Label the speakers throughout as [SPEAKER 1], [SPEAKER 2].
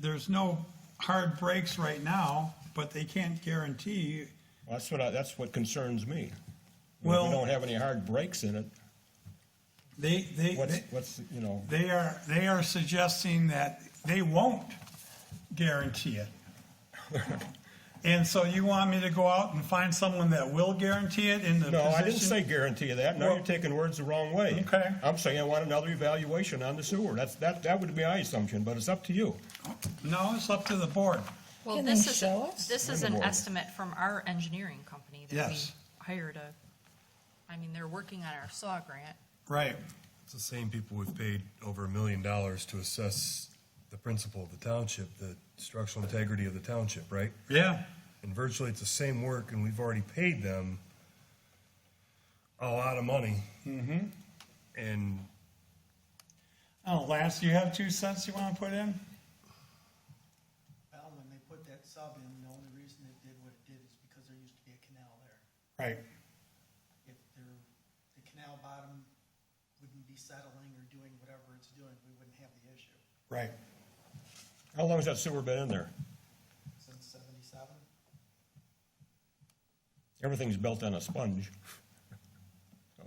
[SPEAKER 1] there's no hard breaks right now, but they can't guarantee.
[SPEAKER 2] Well, That's what, I- that's what concerns me. Well,
[SPEAKER 1] Well-
[SPEAKER 2] we don't have any hard breaks in it.
[SPEAKER 1] They, they,
[SPEAKER 2] What's,
[SPEAKER 1] they-
[SPEAKER 2] what's, you know,
[SPEAKER 1] they are, they are suggesting that they won't guarantee it. And so you want me to go out and find someone that will guarantee it in the
[SPEAKER 2] no,
[SPEAKER 1] position?
[SPEAKER 2] I didn't say guarantee of that. Now you're
[SPEAKER 1] Well-
[SPEAKER 2] taking words the wrong way.
[SPEAKER 1] Okay.
[SPEAKER 2] I'm saying I want another evaluation on the sewer. That's, that, that would be my assumption, but it's up to you.
[SPEAKER 1] No, it's up to the board.
[SPEAKER 3] Well,
[SPEAKER 4] Can they
[SPEAKER 3] this is,
[SPEAKER 4] show us?
[SPEAKER 3] this is an estimate from our engineering company that we
[SPEAKER 1] Yes.
[SPEAKER 3] hired a, I mean, they're working on our SAW grant.
[SPEAKER 1] Right.
[SPEAKER 5] It's the same people we've paid over a million dollars to assess the principle of the township, the structural integrity of the township, right?
[SPEAKER 1] Yeah.
[SPEAKER 5] And virtually it's the same work and we've already paid them a lot of money. Mm-hmm. And
[SPEAKER 1] Oh, Lance, you have two cents you want to put in?
[SPEAKER 6] Well, when they put that sub in, the only reason it did what it did is because there used to be a canal there.
[SPEAKER 1] Right.
[SPEAKER 6] If there, the canal bottom wouldn't be settling or doing whatever it's doing, we wouldn't have the issue
[SPEAKER 1] Right.
[SPEAKER 2] How long has that sewer been in there?
[SPEAKER 6] since seventy-seven.
[SPEAKER 2] Everything's built on a sponge. So,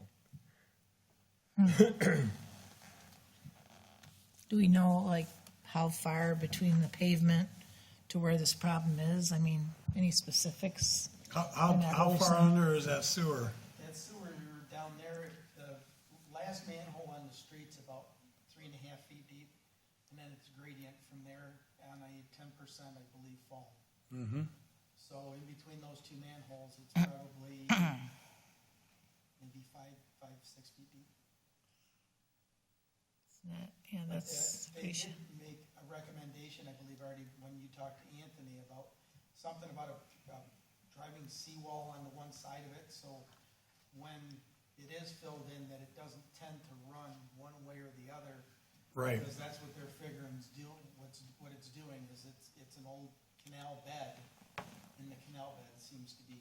[SPEAKER 4] Do we know, like, how far between the pavement to where this problem is? I mean, any specifics?
[SPEAKER 1] How, how, how far under is that sewer?
[SPEAKER 6] That sewer down there, the last manhole on the street's about three and a half feet deep, and then it's gradient from there on a ten percent, I believe, fall. So in between those two manholes, it's probably maybe five, five, six feet deep.
[SPEAKER 4] Yeah, that's,
[SPEAKER 6] They they did make a recommendation, I believe, already when you talked to Anthony about something about a, um, driving seawall on the one side of it, so when it is filled in, that it doesn't tend to run one way or the other.
[SPEAKER 1] Right.
[SPEAKER 6] Because that's what they're figuring is doing, what's, what it's doing is it's, it's an old canal bed, and the canal bed seems to be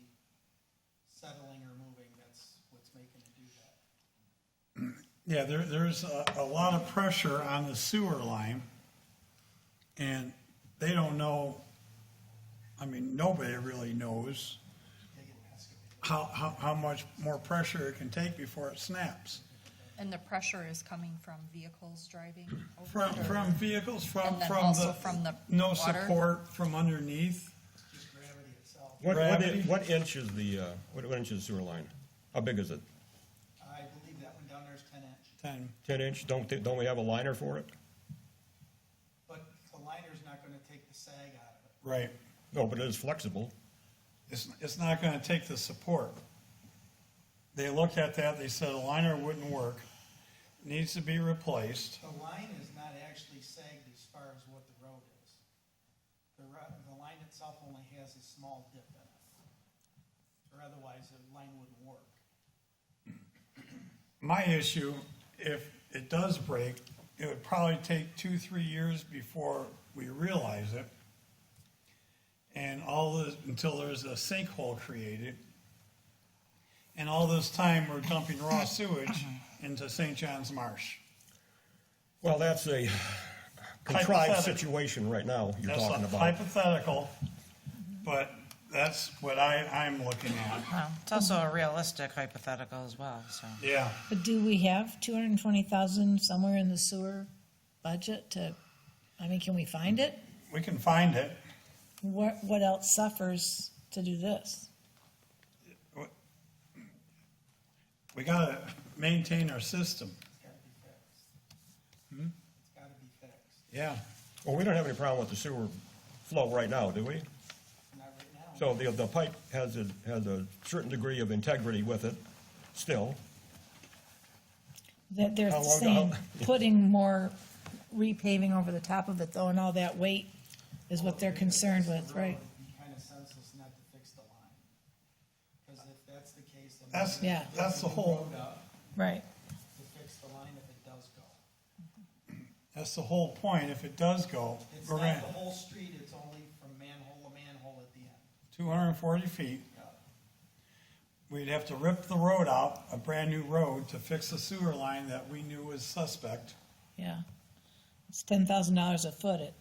[SPEAKER 6] settling or moving, that's what's making it do that.
[SPEAKER 1] Yeah, there, there's a, a lot of pressure on the sewer line. And they don't know, I mean, nobody really knows
[SPEAKER 6] They get escalated.
[SPEAKER 1] how, how, how much more pressure it can take before it snaps.
[SPEAKER 3] And the pressure is coming from vehicles driving over
[SPEAKER 1] From,
[SPEAKER 3] it, or-
[SPEAKER 1] from vehicles, from,
[SPEAKER 3] And then
[SPEAKER 1] from
[SPEAKER 3] also
[SPEAKER 1] the,
[SPEAKER 3] from the
[SPEAKER 1] no
[SPEAKER 3] water?
[SPEAKER 1] support from underneath.
[SPEAKER 6] just gravity itself.
[SPEAKER 2] What, what,
[SPEAKER 1] Gravity?
[SPEAKER 2] i- what inch is the, uh, what what inch is the sewer line? How big is it?
[SPEAKER 6] I believe that one down there is ten inch,
[SPEAKER 1] Ten,
[SPEAKER 2] Ten inch? Don't, they- don't we have a liner for it?
[SPEAKER 6] but the liner's not gonna take the sag out of it.
[SPEAKER 1] right.
[SPEAKER 2] No, but it is flexible.
[SPEAKER 1] It's, it's not gonna take the support. They looked at that, they said a liner wouldn't work, needs to be replaced.
[SPEAKER 6] The line is not actually sagged as far as what the road is. The ro- the line itself only has a small dip in it. Or otherwise, the line wouldn't work.
[SPEAKER 1] My issue, if it does break, it would probably take two, three years before we realize it. And all this, until there's a sinkhole created. And all this time, we're dumping raw sewage into St. John's Marsh.
[SPEAKER 2] Well, that's a contrived
[SPEAKER 1] Hypothetical.
[SPEAKER 2] situation right now you're
[SPEAKER 1] That's
[SPEAKER 2] talking
[SPEAKER 1] a
[SPEAKER 2] about.
[SPEAKER 1] hypothetical, but that's what I, I'm looking at.
[SPEAKER 7] Well, it's also a realistic hypothetical as well, so.
[SPEAKER 1] Yeah.
[SPEAKER 4] but do we have two hundred and twenty thousand somewhere in the sewer budget to, I mean, can we find it?
[SPEAKER 1] We can find it.
[SPEAKER 4] What, what else suffers to do this?
[SPEAKER 1] We gotta maintain our system.
[SPEAKER 6] It's gotta be fixed.
[SPEAKER 1] Hmm?
[SPEAKER 6] It's gotta be fixed,
[SPEAKER 1] Yeah.
[SPEAKER 2] Well, we don't have any problem with the sewer flow right now, do we?
[SPEAKER 6] not right now.
[SPEAKER 2] So the, the pipe has a, has a certain degree of integrity with it still.
[SPEAKER 4] That they're
[SPEAKER 2] How long-
[SPEAKER 4] saying,
[SPEAKER 2] how-
[SPEAKER 4] putting more repaving over the top of it though, and all that weight is what they're concerned with, right?
[SPEAKER 6] It'd be kinda senseless not to fix the line. Cause if that's the case, then.
[SPEAKER 1] That's,
[SPEAKER 4] Yeah.
[SPEAKER 1] that's the whole,
[SPEAKER 6] Road up
[SPEAKER 4] Right.
[SPEAKER 6] to fix the line if it does go.
[SPEAKER 1] that's the whole point. If it does go,
[SPEAKER 6] It's
[SPEAKER 1] we're
[SPEAKER 6] not
[SPEAKER 1] in
[SPEAKER 6] the whole street, it's only from manhole to manhole at the end.
[SPEAKER 1] two hundred and forty feet. We'd have to rip the road out, a brand-new road, to fix a sewer line that we knew was suspect.
[SPEAKER 4] Yeah. It's ten thousand dollars a foot at